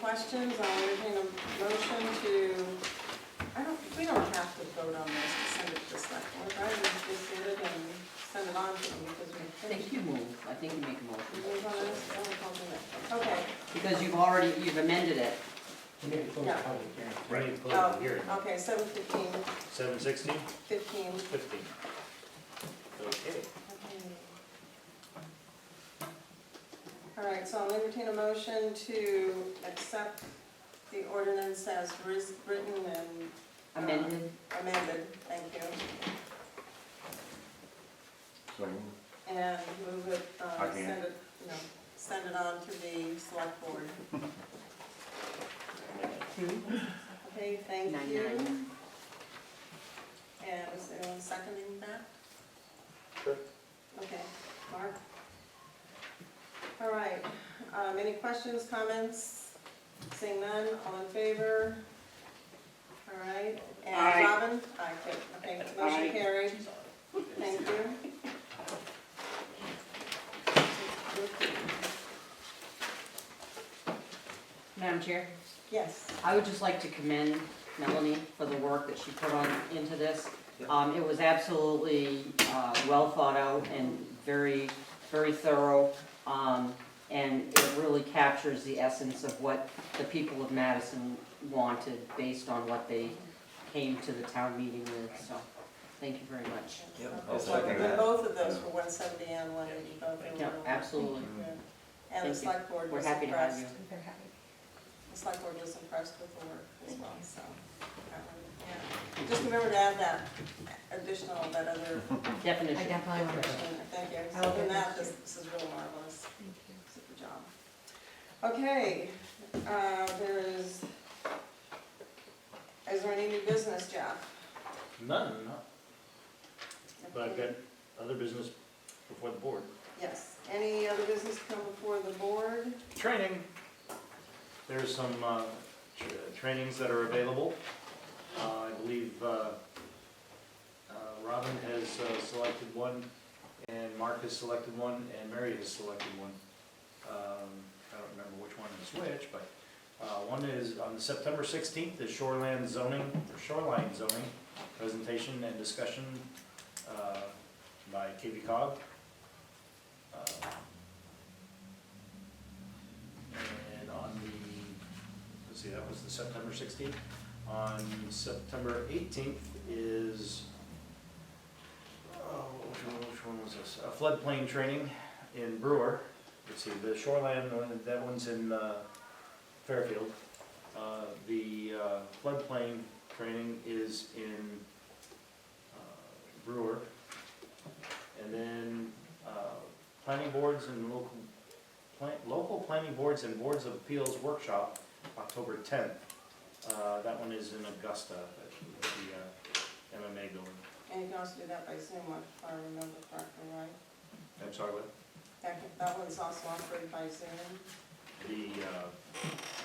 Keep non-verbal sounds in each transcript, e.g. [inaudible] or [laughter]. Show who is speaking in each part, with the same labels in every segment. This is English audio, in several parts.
Speaker 1: questions, I'll entertain a motion to, I don't, we don't have to vote on this to send it to the select board. I would just get it and send it on to them because
Speaker 2: I
Speaker 1: we finished.
Speaker 2: think you move, I think you make a motion,
Speaker 1: Move on this, and we'll do it. Okay,
Speaker 2: because you've already, you've amended it.
Speaker 3: We need to close the
Speaker 1: Yeah.
Speaker 3: public hearing. We need to close the hearing.
Speaker 1: oh, okay, seven fifteen,
Speaker 3: Seven sixteen,
Speaker 1: fifteen.
Speaker 3: fifteen. Okay.
Speaker 1: All right, so I'll entertain a motion to accept the ordinance as ris- written and
Speaker 2: Amended,
Speaker 1: amended, thank you,
Speaker 4: So,
Speaker 1: and move it,
Speaker 4: I
Speaker 1: uh,
Speaker 4: can't.
Speaker 1: send it, no, send it on to the select board. Okay, thank
Speaker 2: nine
Speaker 1: you.
Speaker 2: nine.
Speaker 1: And is anyone seconding that?
Speaker 3: Sure.
Speaker 1: Okay, Mark? All right, um, any questions, comments? Seeing none, all in favor? All right,
Speaker 5: Aye.
Speaker 1: and Robin? Aye, okay, okay,
Speaker 5: Aye.
Speaker 1: motion carried. Thank
Speaker 5: [laughs]
Speaker 1: you.
Speaker 2: Madam Chair,
Speaker 1: Yes,
Speaker 2: I would just like to commend Melanie for the work that she put on into this. Um, it was absolutely, uh, well thought out and very, very thorough. Um, and it really captures the essence of what the people of Madison wanted based on what they came to the town meeting with, so, thank you very much.
Speaker 4: I'll
Speaker 1: So,
Speaker 4: second that.
Speaker 1: both of those were one seventy and one eighty, both of them.
Speaker 2: Yeah,
Speaker 1: were-
Speaker 2: absolutely.
Speaker 1: Yeah. And the
Speaker 2: Thank you.
Speaker 1: select board
Speaker 2: We're
Speaker 1: was
Speaker 2: happy to have
Speaker 1: impressed.
Speaker 2: you.
Speaker 6: They're happy.
Speaker 1: The select board was impressed with the work as well, so. um, yeah. Just remember to add that additional, that
Speaker 4: [laughs]
Speaker 1: other
Speaker 6: I
Speaker 2: Definition.
Speaker 6: definitely want to.
Speaker 1: definition, thank you.
Speaker 2: Oh,
Speaker 6: I will
Speaker 1: So
Speaker 6: do
Speaker 1: in that,
Speaker 6: that.
Speaker 1: this, this is really marvelous,
Speaker 6: Thank you.
Speaker 1: super job. Okay, uh, there is, is there any new business, Jeff?
Speaker 3: None, no. but I've got other business before the board.
Speaker 1: Yes, any other business come before the board?
Speaker 3: Training. There's some uh, tr- trainings that are available. Uh, I believe uh, uh, Robin has uh, selected one, and Mark has selected one, and Mary has selected one. Um, I don't remember which one is which, but uh, one is on September 16th, the shoreline zoning, or shoreline zoning presentation and discussion uh, by KB Cog. Uh, and on the, let's see, that was the September sixteenth. On September eighteenth is, oh, which one, which one was this? A floodplain training in Brewer. Let's see, the shoreline, one, that one's in uh, Fairfield. Uh, The uh, floodplain training is in uh, Brewer. And then uh, planning boards and local Plan- Local Planning Boards and Boards of Appeals Workshop, October 10th. Uh, That one is in Augusta, at the uh, MMA building.
Speaker 1: And you can also do that by Zoom, if I remember correctly, right?
Speaker 3: I'm sorry, what?
Speaker 1: That, that one's also offered by Zoom,
Speaker 3: The uh,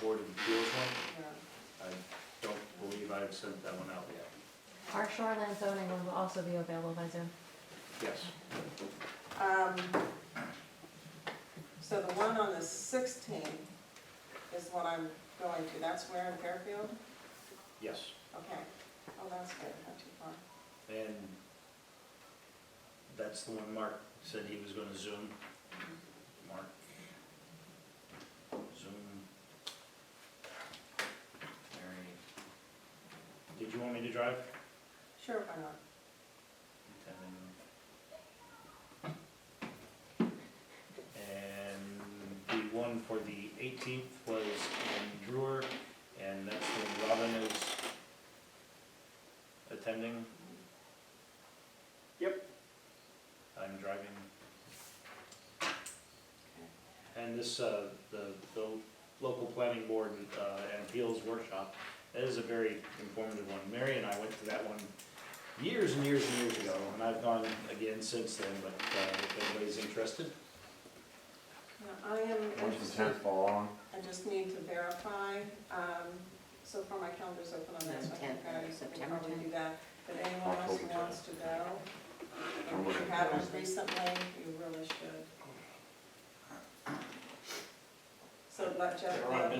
Speaker 3: Board of Appeals one,
Speaker 1: yeah.
Speaker 3: I don't believe I've sent that one out yet.
Speaker 6: Our shoreline zoning one will also be available by Zoom.
Speaker 3: Yes.
Speaker 1: Um, So the one on the 16th is what I'm going to, that's where in Fairfield?
Speaker 3: Yes.
Speaker 1: Okay, oh, that's good, not too far.
Speaker 3: And that's the one Mark said he was gonna zoom. Mark. Zoom. Mary. Did you want me to drive?
Speaker 1: Sure, why not?
Speaker 3: And the one for the eighteenth was in Drewer, and that's when Robin is attending. Yep. I'm driving. And this, uh, the, the local planning board, uh, and appeals workshop, that is a very informative one. Mary and I went to that one years and years and years ago, and I've gone again since then, but uh, if anybody's interested,
Speaker 1: Yeah, I am
Speaker 4: once the
Speaker 1: interested,
Speaker 4: tenth fall on,
Speaker 1: I just need to verify, um, so far my calendar's open on that, so I think
Speaker 2: Tenth,
Speaker 1: I can
Speaker 2: September
Speaker 1: probably
Speaker 2: tenth.
Speaker 1: do that. But anyone else who
Speaker 4: October
Speaker 1: wants to go,
Speaker 4: I'm
Speaker 1: if
Speaker 4: looking
Speaker 1: you
Speaker 4: for
Speaker 1: haven't
Speaker 4: it.
Speaker 1: recently, you really should. So let Jeff um, know.